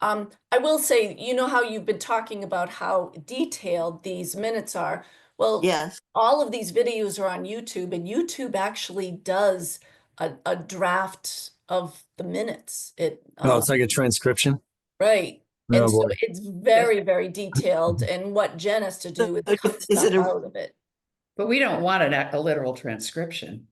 Um, I will say, you know how you've been talking about how detailed these minutes are? Well, Yes, all of these videos are on YouTube and YouTube actually does a, a draft of the minutes. It, Oh, uh, Uh-huh. it's like a transcription. right. Oh, And so boy. it's very, very detailed and what Jen has to do is So, cut is stuff it a- out of it. But we don't want an, a literal transcription.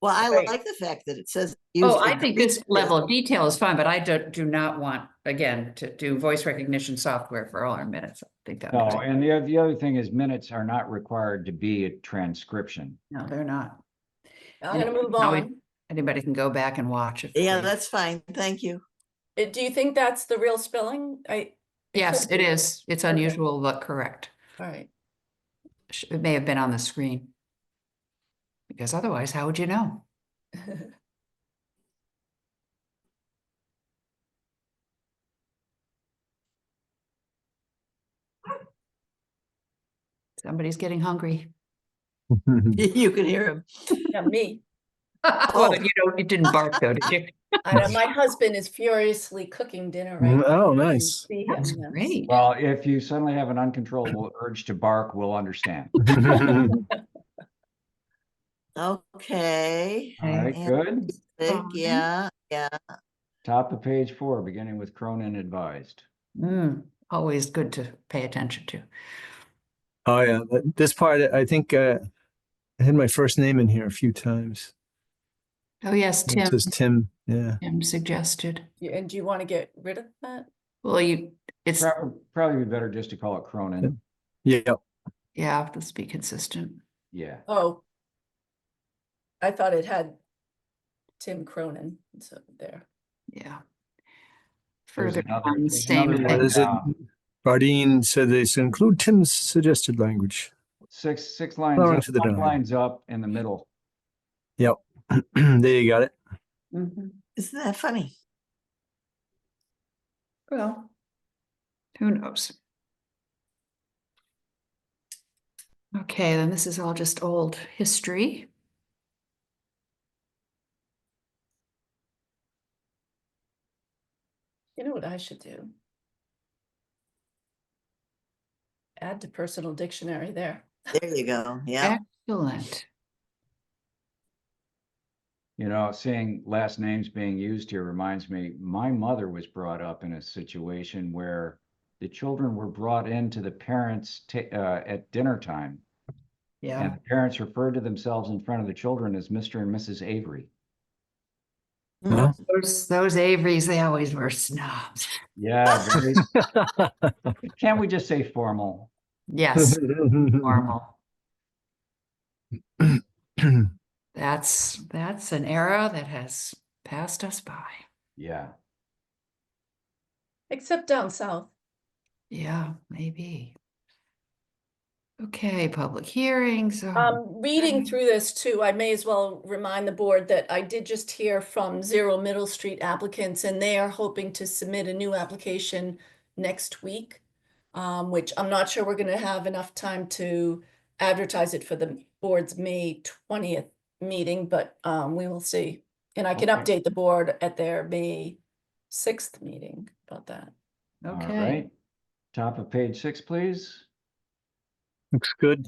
well, I Right. like the fact that it says. Oh, used I in think this previous- level of detail is fine, but I do, do not want, again, to do voice recognition software for all our minutes. I think that, No, was- and the, oth- the other thing is minutes are not required to be a transcription. no, they're not. I'm gonna move Now we- on. Anybody can go back and watch. if Yeah, they- that's fine. Thank you. Uh, Do you think that's the real spelling? I, Yes, it is. It's Okay. unusual, but correct. all right. Sh- It may have been on the screen. Because otherwise, how would you know? Somebody's getting hungry. You can hear him. Yeah, me. Well, Oh. you don't, you didn't bark though, did you? I know, my husband is furiously cooking dinner right now. Oh, You can nice. see him, That's yes. great. Well, if you suddenly have an uncontrollable urge to bark, we'll understand. Okay. All right, Yeah. good. Big, yeah, yeah. Top of page four, beginning with Cronin advised. Mm, always good to pay attention to. Oh, yeah. But This part, I think uh, I had my first name in here a few times. Oh, yes, It Tim, says Tim. Yeah. Tim suggested. You- And do you want to get rid of that? Well, you, it's, Prob- Probably be better just to call it Cronin. Yeah. yeah, let's be consistent. Yeah, Oh. I thought it had Tim Cronin, so there. Yeah. There's Further another- on, there's same another one. What thing. is it? Yeah. Bardine said they should include Tim's suggested language. six, six lines, Going up, to the five drawing. lines up in the middle. there you got it. Mhm. Isn't that funny? Well, who knows? Okay, then this is all just old history. You know what I should do? Add to personal dictionary there. There you go. Yeah. Excellent. You know, seeing last names being used here reminds me, my mother was brought up in a situation where the children were brought into the parents' ta- uh, at dinner time. And Yeah, the parents referred to themselves in front of the children as Mr. and Mrs. Avery. Mm-hmm. No? those, those Averys, they always were snobs. Yeah. very- Can't we just say formal? Yes, normal. That's, that's an era that has passed us by. Yeah. Except down south. Yeah, maybe. Okay, public hearings. oh, Um, reading Okay. through this too, I may as well remind the board that I did just hear from Zero Middle Street applicants and they are hoping to submit a new application next week. Um, which I'm not sure we're gonna have enough time to advertise it for the board's May twentieth meeting, but um, we will see. And I can Okay. update the board at their May sixth meeting about that. All Okay, right. Top of page six, please. Looks good.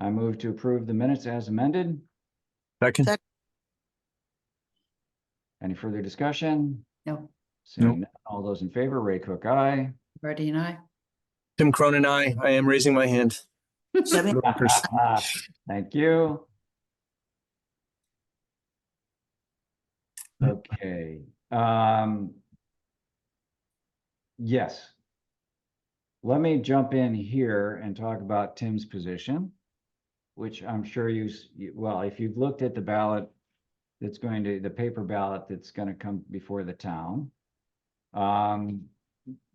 I move to approve the minutes as amended. Second. Sec- Any further discussion? no, Seeing none, all those in favor, Ray Cook, aye. Verdi and I. Tim Cronin, I, I am raising my hand. Seven- Thank you. Okay, um. Yes. Let me jump in here and talk about Tim's position. Which I'm sure you, s- you- well, if you've looked at the ballot. That's going to, the paper ballot that's gonna come before the town. Um,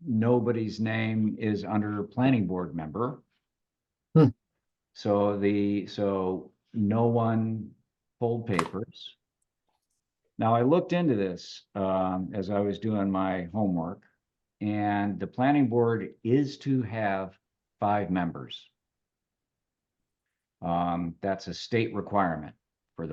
nobody's name is under planning board member. So the, so no one pulled papers. Now, I looked into this, um, as I was doing my homework. And the planning board is to have five members. Um, that's a state requirement.